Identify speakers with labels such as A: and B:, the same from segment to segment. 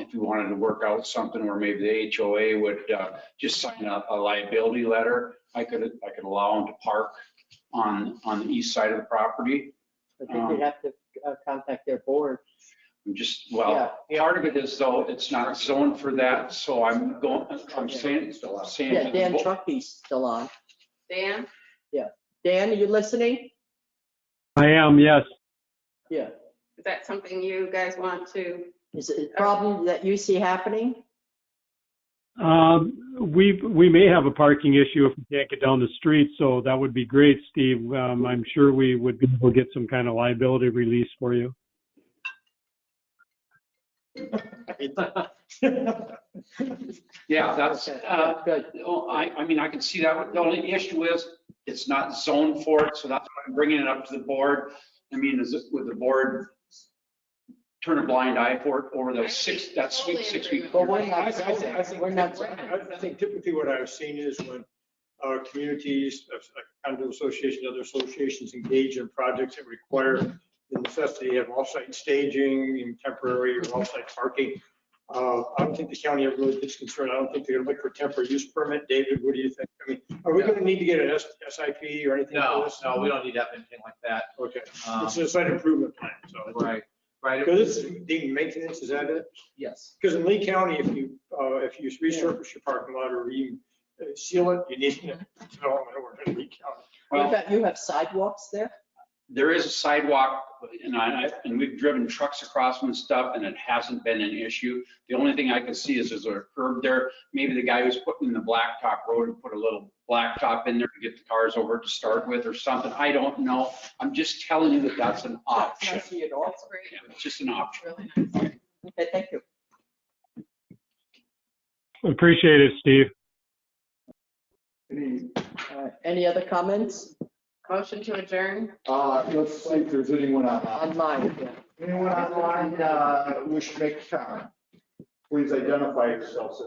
A: if you wanted to work out something where maybe the HOA would uh, just sign a a liability letter, I could, I could allow them to park on, on the east side of the property.
B: I think you'd have to uh, contact their board.
A: I'm just, well, part of it is though, it's not zoned for that, so I'm going, I'm saying, saying. to
B: Yeah,
A: the
B: Dan
A: bo-
B: Truckee's still on.
C: Dan?
B: Dan, are you listening?
D: I am, yes.
B: Yeah.
C: Is that something you guys want to?
B: Is it a problem that you see happening?
D: Um, we, we may have a parking issue if we can't get down the street, so that would be great, Steve. Um, I'm sure we would be able to get some kind of liability release for you.
A: Yeah, that's,
B: Okay,
A: uh,
B: Good.
A: Oh, I, I mean, I can see that. The only issue is it's not zoned for it, so that's why I'm bringing it up to the board. I mean, is it, would the board turn a blind eye for it over those six, that sweet six week?
B: But we're
E: I- I
B: not,
E: think- I think-
B: we're not,
E: I I think typically what I've seen is when our communities, uh, condo associations, other associations engage in projects that require the necessity of off-site staging and temporary or off-site parking. Uh, I don't think the county ever really gets concerned. I don't think they're gonna look for temporary use permit. David, what do you think? I mean, are we gonna need to get an S- SIP or anything for
F: No,
E: this?
F: no, we don't need to have anything like that.
E: Okay,
F: Um,
E: it's a site improvement plan, so.
F: Right, right.
E: Because this is being maintenance, is that it?
F: Yes.
E: Because in Lee County, if you, uh, if you resurface your parking lot or you uh, seal it, you need an development order in Lee County.
B: you
A: Well,
B: have, you have sidewalks there?
A: there is a sidewalk and I, and we've driven trucks across and stuff and it hasn't been an issue. The only thing I can see is there's a curb there. Maybe the guy who's putting in the blacktop road and put a little blacktop in there to get the cars over to start with or something. I don't know. I'm just telling you that that's an option.
B: Can't see it all.
C: That's great.
A: Yeah, it's just an option.
C: Really nice.
B: Okay, thank you.
D: Appreciate it, Steve.
G: Any,
B: All right. Any other comments
C: Motion to adjourn?
G: uh, let's see if there's anyone online.
B: on mine? yeah.
G: Anyone online, uh, wish to make a comment? Please identify yourselves.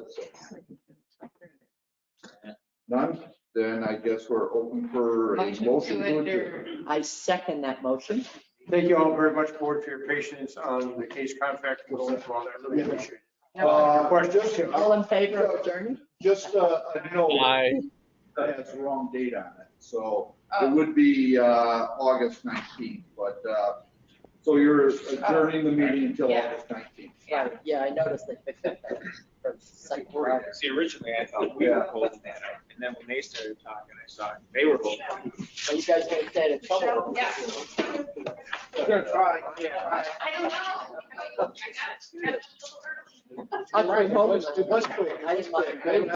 G: None? Then I guess we're open for a motion to adjourn.
B: I second that motion.
E: Thank you all very much, board, for your patience on the case contract. and all that. I really appreciate it.
G: Uh,
E: Questions?
B: All in favor of adjourning?
G: Just uh, a a note.
H: Aye.
G: That has the wrong date on it, so it
C: Oh,
G: would be, uh, August nineteenth, but, uh, so you're adjourning the meeting until
C: Yeah.
G: August nineteenth.
C: yeah.
B: Yeah, I noticed they picked up that. for second round.
F: See, originally I thought we were holding that, up, and then when they started talking, I saw they were holding. it.
B: Are you guys going to stay in trouble?
C: Yeah. I don't know. I got it. I got it a little early.
B: I'm going home.
G: Let's do- let's do it.
B: I just want to go.